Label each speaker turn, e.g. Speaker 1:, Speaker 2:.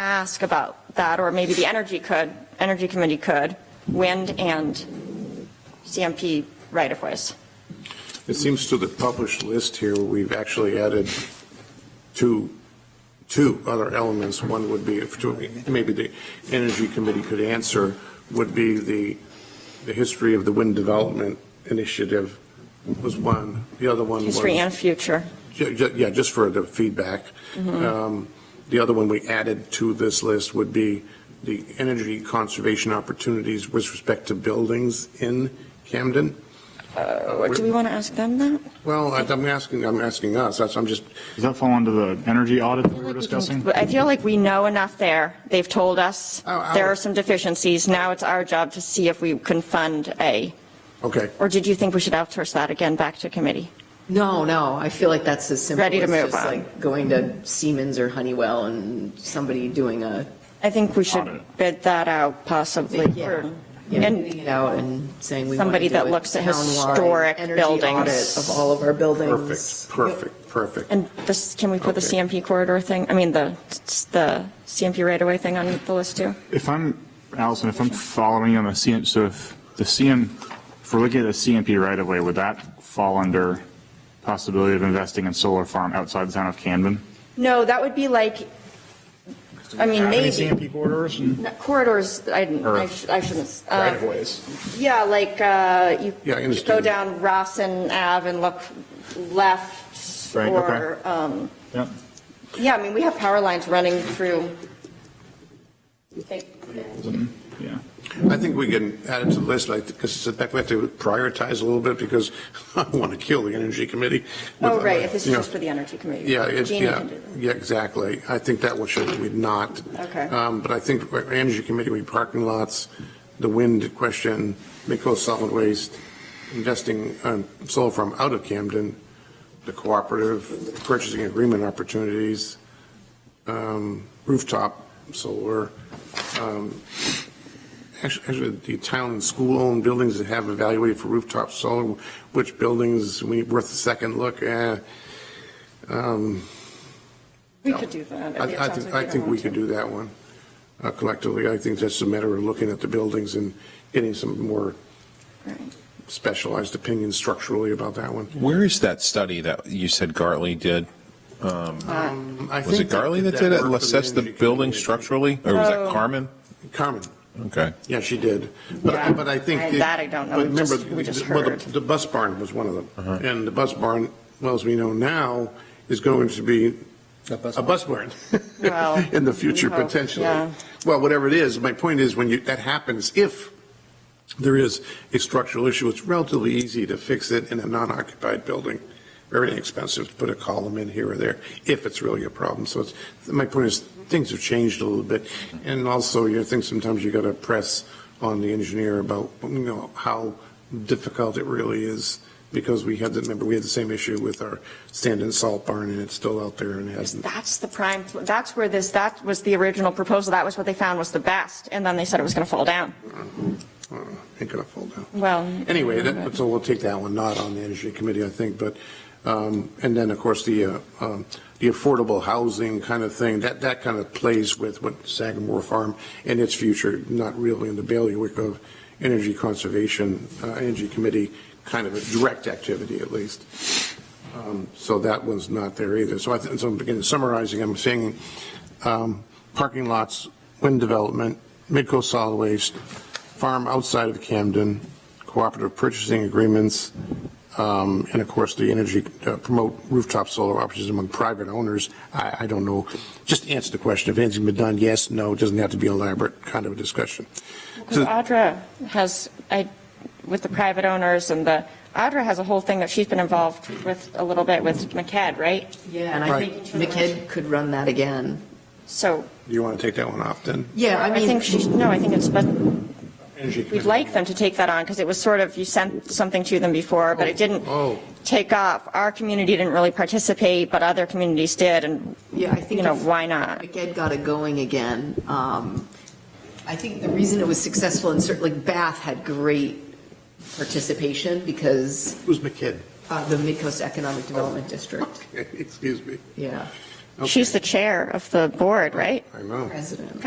Speaker 1: ask about that, or maybe the energy could, energy committee could, wind and CMP right-of-ways.
Speaker 2: It seems to the published list here, we've actually added two, two other elements. One would be, if to- maybe the Energy Committee could answer, would be the, the history of the wind development initiative was one. The other one was.
Speaker 1: History and Mm-hmm. future.
Speaker 2: Ju- ju- Yeah, just for the feedback. Um, The other one we added to this list would be the energy conservation opportunities with respect to buildings in Camden.
Speaker 1: Uh, Do we want to ask them that?
Speaker 2: Well, I- I'm asking, I'm asking us, that's, I'm just,
Speaker 3: Does that fall under the energy audit that we were discussing?
Speaker 1: But I feel like we know enough there. They've told us
Speaker 2: Oh, I
Speaker 1: there
Speaker 2: would-
Speaker 1: are some deficiencies. Now it's our job to see if we can fund a,
Speaker 2: okay.
Speaker 1: or did you think we should outsource that again back to committee?
Speaker 4: No, no, I feel like that's as simple.
Speaker 1: Ready to
Speaker 4: as
Speaker 1: move on.
Speaker 4: just like Going to Siemens or Honeywell and somebody doing a,
Speaker 1: I think we should
Speaker 3: Audit.
Speaker 1: bid that out possibly.
Speaker 4: Yeah.
Speaker 1: or-
Speaker 4: you know,
Speaker 1: And
Speaker 4: getting it out and saying we want to
Speaker 1: Somebody
Speaker 4: do
Speaker 1: that
Speaker 4: a
Speaker 1: looks at
Speaker 4: townwide
Speaker 1: historic
Speaker 4: energy
Speaker 1: buildings.
Speaker 4: audit Of all of our buildings.
Speaker 2: Perfect, perfect, perfect.
Speaker 1: And this, can we put the
Speaker 2: Okay.
Speaker 1: CMP corridor thing, I mean, the, the CMP right-of-way thing on the list too?
Speaker 3: If I'm, Allison, if I'm following you on the CM, so if the CM, if we're looking at the CMP right away, would that fall under possibility of investing in solar farm outside the town of Camden?
Speaker 1: No, that would be like, I mean,
Speaker 3: Have
Speaker 1: maybe,
Speaker 3: any CMP corridors and
Speaker 1: not corridors, I, didn't- I
Speaker 3: Or-
Speaker 1: sh- I shouldn't. uh,
Speaker 3: right of ways?
Speaker 1: Yeah, like, uh, you
Speaker 2: Yeah, I
Speaker 1: go
Speaker 2: understand.
Speaker 1: down Rossin Ave and look left
Speaker 3: Right,
Speaker 1: or, um,
Speaker 3: Yep.
Speaker 1: yeah, I mean, we have power lines running through. oh,
Speaker 3: Yeah.
Speaker 2: I think we can add it to the list, like, because it's, we have to prioritize a little bit, because I want to kill the Energy Committee.
Speaker 1: Oh, right, if this
Speaker 2: You
Speaker 1: is
Speaker 2: know,
Speaker 1: just for the energy committee.
Speaker 2: Yeah, it,
Speaker 1: Jeannie
Speaker 2: yeah,
Speaker 1: can do that.
Speaker 2: yeah, exactly. I think that one should be not.
Speaker 1: Okay.
Speaker 2: Um, but I think for Energy Committee, we parking lots, the wind question, Midco Solid Waste, investing, um, solar farm out of Camden, the cooperative purchasing agreement opportunities, um, rooftop solar, um, actu- actually, the town and school-owned buildings that have evaluated for rooftop solar, which buildings we, worth a second look, eh, um,
Speaker 1: We could do that.
Speaker 2: I
Speaker 1: It
Speaker 2: I
Speaker 1: sounds like
Speaker 2: think, I
Speaker 1: don't
Speaker 2: think we
Speaker 1: want
Speaker 2: could
Speaker 1: to.
Speaker 2: do that one uh, collectively. I think that's a matter of looking at the buildings and getting some more
Speaker 1: Right.
Speaker 2: specialized opinions structurally about that one.
Speaker 5: Where is that study that you said Gartley did? Um,
Speaker 2: I
Speaker 5: Was
Speaker 2: think
Speaker 5: it Gartley that did it,
Speaker 2: work for
Speaker 5: assess the
Speaker 2: Energy
Speaker 5: building
Speaker 2: Committee.
Speaker 5: structurally, or was
Speaker 1: Oh.
Speaker 5: that Carmen?
Speaker 2: Carmen,
Speaker 5: Okay.
Speaker 2: yeah, she did. But, but I think.
Speaker 1: I-
Speaker 2: the-
Speaker 1: that I don't know.
Speaker 2: but
Speaker 1: We just-
Speaker 2: remember,
Speaker 1: we just
Speaker 2: well, the-
Speaker 1: heard.
Speaker 2: The bus barn was one of them. And the bus barn, well, as we know now, is going to be a bus barn.
Speaker 1: Well,
Speaker 2: In the future,
Speaker 1: we hope,
Speaker 2: potentially.
Speaker 1: yeah.
Speaker 2: Well, whatever it is, my point is, when you, that happens, if there is a structural issue, it's relatively easy to fix it in a non-occupied building. Very inexpensive to put a column in here or there, if it's really a problem. So it's, my point is, things have changed a little bit. And also, you think sometimes you got to press on the engineer about, you know, how difficult it really is, because we had, the- remember, we had the same issue with our stand-in salt barn, and it's still out there and hasn't.
Speaker 1: That's the prime, that's where this, that was the original proposal. That was what they found was the best. And then they said it was going to fall down.
Speaker 2: Uh, Ain't gonna fall down.
Speaker 1: Well.
Speaker 2: Anyway, that, so we'll take that one, not on the Energy Committee, I think, but, um, and then, of course, the, uh, um, the affordable housing kind of thing, that, that kind of plays with what Sagamore Farm and its future, not really in the bailiwick of Energy Conservation, uh, Energy Committee, kind of a direct activity at least. Um, So that one's not there either. So I, think- so again, summarizing, I'm saying, um, parking lots, wind development, Midco Solid Waste, farm outside of Camden, cooperative purchasing agreements, um, and of course, the energy, uh, promote rooftop solar options among private owners. I, I don't know, just answer the question. If anything's been done, yes, no, it doesn't have to be elaborate kind of a discussion.
Speaker 1: Because Audra has, I, with the private owners and the, Audra has a whole thing that she's been involved with a little bit with MCAD, right?
Speaker 4: Yeah, and I
Speaker 2: Right.
Speaker 4: think McKidd could run that again.
Speaker 1: So
Speaker 2: Do you want to take that one off then?
Speaker 4: Yeah, I
Speaker 1: I
Speaker 4: mean,
Speaker 1: think she's, no, I think it's, but
Speaker 2: Energy
Speaker 1: we'd
Speaker 2: Committee.
Speaker 1: like them to take that on because it was sort of, you sent something to them before, but it didn't
Speaker 2: Oh.
Speaker 1: take off. Our community didn't really participate, but other communities did. And,
Speaker 4: yeah, I think.
Speaker 1: you know,
Speaker 4: if-
Speaker 1: why not?
Speaker 4: McEd got it going again. Um, I think the reason it was successful in certain, like Bath had great participation because
Speaker 2: Who's McKidd?
Speaker 4: uh, the Midcoast Economic Development District,
Speaker 2: Excuse me.
Speaker 4: yeah.
Speaker 2: She's the chair of the board, right?
Speaker 1: I know.
Speaker 4: president.